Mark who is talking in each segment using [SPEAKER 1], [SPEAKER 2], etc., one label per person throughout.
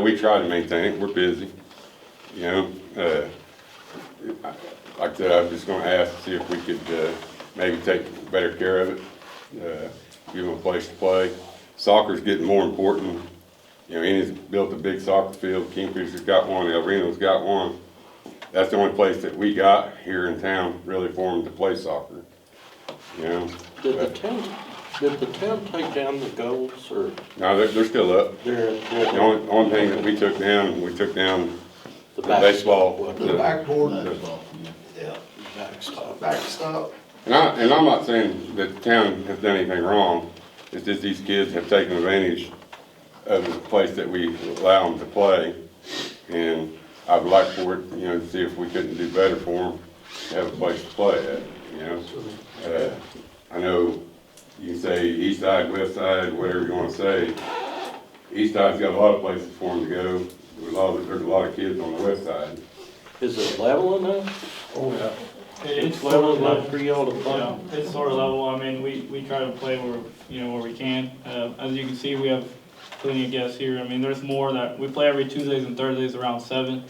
[SPEAKER 1] we try to maintain it, we're busy, you know, uh, I- like I said, I'm just gonna ask, to see if we could, uh, maybe take better care of it, uh, give them a place to play. Soccer's getting more important, you know, Ennis built a big soccer field, Kingfisher's got one, El Reno's got one. That's the only place that we got here in town really for them to play soccer, you know?
[SPEAKER 2] Did the
[SPEAKER 1] But-
[SPEAKER 2] town, did the town take down the goals or
[SPEAKER 1] No, they're, they're still up.
[SPEAKER 2] their,
[SPEAKER 1] The
[SPEAKER 2] their,
[SPEAKER 1] only, only thing that we took down, we took down
[SPEAKER 2] the
[SPEAKER 1] baseball.
[SPEAKER 2] basketball?
[SPEAKER 3] The backboard, yeah,
[SPEAKER 2] Backstop.
[SPEAKER 3] backstop.
[SPEAKER 1] And I, and I'm not saying that the town has done anything wrong, it's just these kids have taken advantage of the place that we allow them to play. And I'd like for it, you know, to see if we couldn't do better for them, to have a place to play at, you know? Uh, I know you can say east side, west side, whatever you wanna say. East side's got a lot of places for them to go, there's a lot, of- there's a lot of kids on the west side.
[SPEAKER 2] Is it level enough?
[SPEAKER 4] Oh, yeah.
[SPEAKER 2] It's level enough for y'all to
[SPEAKER 5] Yeah,
[SPEAKER 2] play?
[SPEAKER 5] it's sort of level, I mean, we, we try to play where, you know, where we can. Uh, as you can see, we have plenty of guests here, I mean, there's more that, we play every Tuesdays and Thursdays around seven.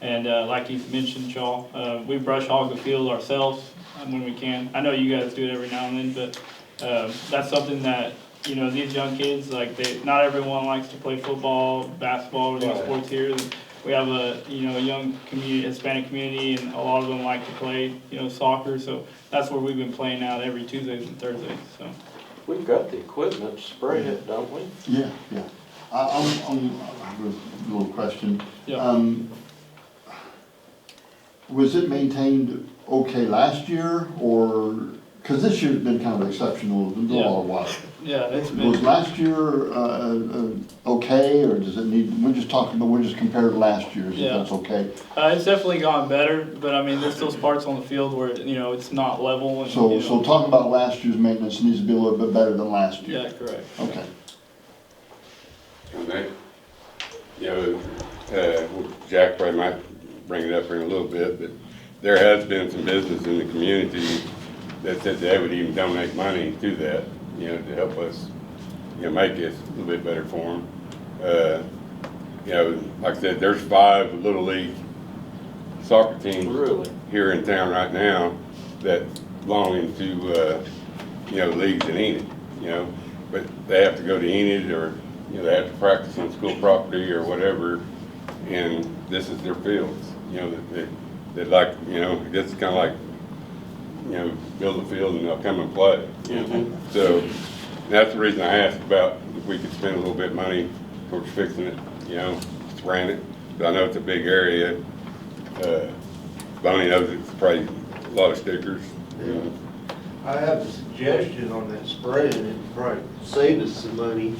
[SPEAKER 5] And, uh, like you mentioned, y'all, uh, we brush hog the field ourselves um, when we can. I know you guys do it every now and then, but, um that's something that, you know, these young kids, like, they, not everyone likes to play football, basketball, or these
[SPEAKER 4] Right.
[SPEAKER 5] sports here. We have a, you know, a young community, Hispanic community, and a lot of them like to play, you know, soccer, so that's where we've been playing out every Tuesdays and Thursdays, so.
[SPEAKER 2] We've got the equipment, to spray it, don't we?
[SPEAKER 6] Yeah, yeah. I, I'm, I'm, I have a little question.
[SPEAKER 5] Yeah.
[SPEAKER 6] Um, was it maintained okay last year or, cause this year's been kind of exceptional, it's been a lot of water.
[SPEAKER 5] Yeah, it's
[SPEAKER 6] Was
[SPEAKER 5] been,
[SPEAKER 6] last year, uh, uh, okay, or does it need, we're just talking, but we're just compared to last year's, if
[SPEAKER 5] Yeah.
[SPEAKER 6] that's okay?
[SPEAKER 5] uh, it's definitely gotten better, but I mean, there's still parts on the field where, you know, it's not level and, you
[SPEAKER 6] So, so
[SPEAKER 5] know.
[SPEAKER 6] talking about last year's maintenance needs to be a little bit better than last year.
[SPEAKER 5] Yeah, correct.
[SPEAKER 6] Okay.
[SPEAKER 1] And they, you know, uh, Jack probably might bring it up here in a little bit, but there has been some business in the community that said they would even donate money to that, you know, to help us, you know, make this a little bit better for them. Uh, you know, like I said, there's five Little League soccer teams
[SPEAKER 2] Really?
[SPEAKER 1] here in town right now that belong into, uh, you know, leagues in Enid, you know, but they have to go to Enid or, you know, they have to practice on school property or whatever, and this is their fields, you know, that, that, that like, you know, it's kinda like, you know, build a field and they'll come and play, you know? So, that's the reason I asked about if we could spend a little bit of money towards fixing it, you know, spraying it, 'cause I know it's a big area, uh, Bonnie knows it's probably a lot of stickers. you know.
[SPEAKER 3] I have a suggestion on that spray, and it'd probably save us some money.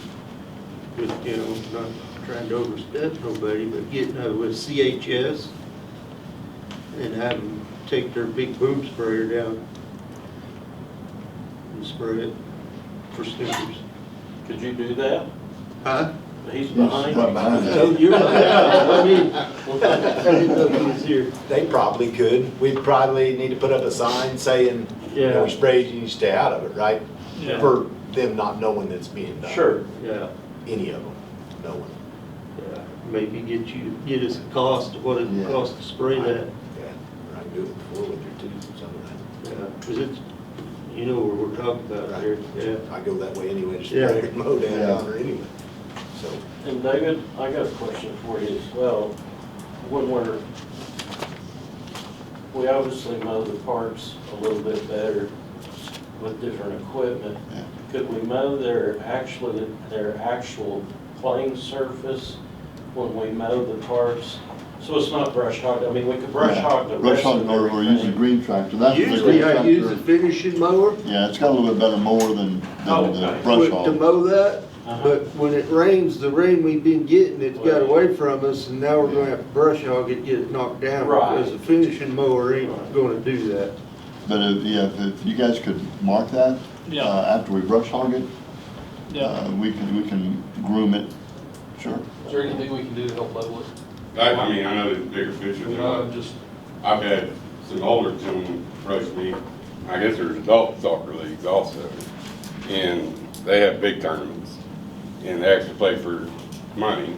[SPEAKER 3] With, you know, not trying to overstep nobody, but getting out with CHS and have them take their big boom sprayer down and spray it for stickers.
[SPEAKER 2] Could you do that?
[SPEAKER 3] Huh?
[SPEAKER 2] He's behind
[SPEAKER 6] Right
[SPEAKER 2] you.
[SPEAKER 6] behind us.
[SPEAKER 3] Oh, you're, right. I mean, I didn't know he was here.
[SPEAKER 7] They probably could. We probably need to put up a sign saying, you know, we sprayed you, you stay out of it, right?
[SPEAKER 5] Yeah.
[SPEAKER 7] For them not knowing that's being done.
[SPEAKER 2] Sure,
[SPEAKER 3] Yeah.
[SPEAKER 7] Any of them, no one.
[SPEAKER 3] Yeah, Maybe get you, get us a cost, what it
[SPEAKER 6] Yeah.
[SPEAKER 3] costs to spray that.
[SPEAKER 7] Yeah, or I can do it before winter too, something
[SPEAKER 3] Because it's, you know what we're talking about here, yeah.
[SPEAKER 7] like that. I go that way anyway, just
[SPEAKER 3] Yeah.
[SPEAKER 7] spray it, mow down
[SPEAKER 6] Yeah.
[SPEAKER 7] yonder anyway. So,
[SPEAKER 2] And David, I got a question for you as well. When we're, we obviously mow the parks a little bit better with different equipment.
[SPEAKER 6] Yeah.
[SPEAKER 2] Could we mow their actually, their actual playing surface when we mow the parks? So it's not brush hog, I mean, we could brush hog the
[SPEAKER 6] Brush
[SPEAKER 2] rest
[SPEAKER 6] hog,
[SPEAKER 2] of
[SPEAKER 6] or, or use a
[SPEAKER 2] everything.
[SPEAKER 6] green tractor, that's the green
[SPEAKER 3] Usually I use a
[SPEAKER 6] tractor.
[SPEAKER 3] finishing mower
[SPEAKER 6] Yeah, it's got a little bit better mower than,
[SPEAKER 2] Oh,
[SPEAKER 6] than the
[SPEAKER 2] okay.
[SPEAKER 6] brush
[SPEAKER 3] to
[SPEAKER 6] hog.
[SPEAKER 3] mow that,
[SPEAKER 2] Uh-huh.
[SPEAKER 3] but when it rains, the rain we've been getting, it's got away from us, and now we're gonna have to brush hog it, get it knocked down.
[SPEAKER 2] Right.
[SPEAKER 3] Because the finishing mower ain't gonna do that.
[SPEAKER 6] But if, yeah, if- if you guys could mark that,
[SPEAKER 5] Yeah.
[SPEAKER 6] uh, after we brush hog it,
[SPEAKER 5] Yeah,
[SPEAKER 6] uh, we can, we can groom it, sure.
[SPEAKER 8] Is there anything we can do to help level it?
[SPEAKER 1] I, I mean, I know there's bigger fish than
[SPEAKER 8] Uh,
[SPEAKER 1] I,
[SPEAKER 8] Just,
[SPEAKER 1] I've had some older gentlemen approach me. I guess there's adult soccer leagues also, and they have big tournaments, and they actually play for money,